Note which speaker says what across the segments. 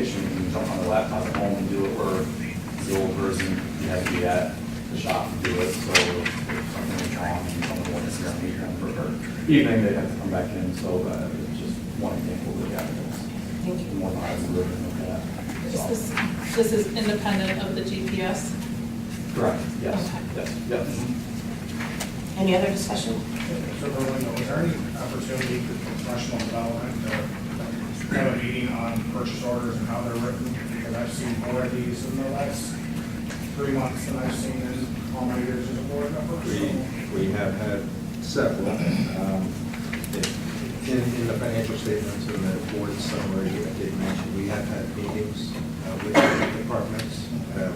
Speaker 1: jump on the laptop at home and do it, or the old person, you had to be at the shop to do it, so if something was wrong, and someone wanted to see me, or or evening, they had to come back in, so uh, it's just one example of the evidence. More than I was living with that.
Speaker 2: Is
Speaker 1: so.
Speaker 2: This this is independent of the GPS.
Speaker 1: Correct, yes,
Speaker 2: Okay. Mm-hmm.
Speaker 1: yes, yes.
Speaker 3: Any other discussion?
Speaker 4: So Berlin, is there any opportunity for professional development to have a meeting on purchase orders and how they're written? Because I've seen more of these in the last three months than I've seen in all my years as a board member.
Speaker 5: We,
Speaker 4: So
Speaker 5: we have had several, um, in, in the financial statements and the board summary, I did mention, we have had meetings uh, with the departments. uh,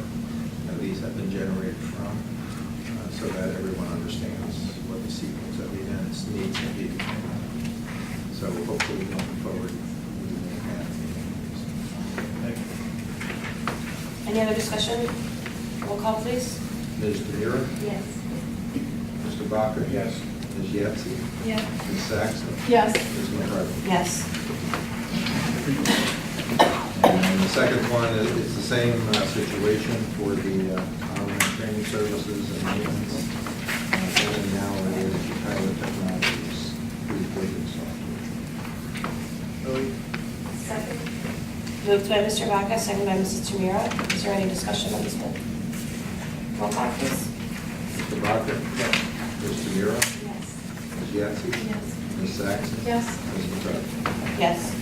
Speaker 5: and These have been generated from, uh, so that everyone understands what the sequence of events needs to be. So hopefully going forward, we will have meetings.
Speaker 4: Thank you.
Speaker 3: Any other discussion? Roll call, please.
Speaker 5: Ms. Demira?
Speaker 3: Yes.
Speaker 5: Mr. Bakker?
Speaker 4: Yes.
Speaker 5: Ms. Yetsey?
Speaker 2: Yeah.
Speaker 5: Ms. Saxon?
Speaker 2: Yes.
Speaker 5: Ms. McCarthy?
Speaker 3: Yes.
Speaker 5: And the second one is, it's the same uh, situation for the uh, online training services and maintenance. And now it is Tyler Technologies, reporting software.
Speaker 4: Really,
Speaker 3: Second. Moved by Mr. Vaca, second by Mrs. Tamira. Is there any discussion on this one? Roll call, please.
Speaker 5: Mr. Bakker?
Speaker 4: Yes.
Speaker 5: Ms. Tamira?
Speaker 3: Yes.
Speaker 5: Ms. Yetsey?
Speaker 2: Yes.
Speaker 5: Ms. Saxon?
Speaker 2: Yes.
Speaker 5: Ms. McCarthy?
Speaker 3: Yes.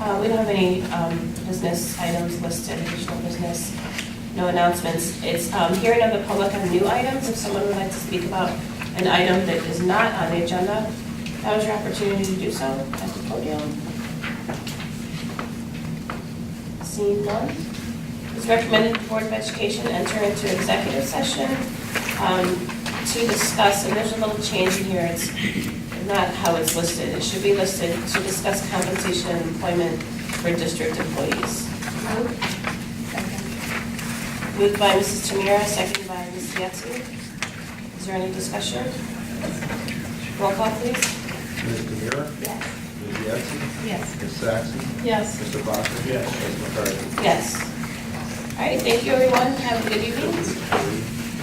Speaker 3: Uh, We don't have any um, business items listed, additional business, no announcements. It's um, hearing of the public on new items. If someone would like to speak about an item that is not on the agenda, that was your opportunity to do so at the podium. Seeing none, it's recommended the Board of Education enter into executive session um, to discuss, and there's a little change in here, it's not how it's listed, it should be listed to discuss compensation and employment for district employees. Moved by Mrs. Tamira, seconded by Ms. Yetsey. Is there any discussion? Roll call, please.
Speaker 5: Ms. Tamira?
Speaker 3: Yes.
Speaker 5: Ms. Yetsey?
Speaker 2: Yes.
Speaker 5: Ms. Saxon?
Speaker 2: Yes.
Speaker 5: Mr. Bakker?
Speaker 4: Yes.
Speaker 5: Ms. McCarthy?
Speaker 3: Yes. All right, thank you, everyone, have a good evening.
Speaker 5: Yes.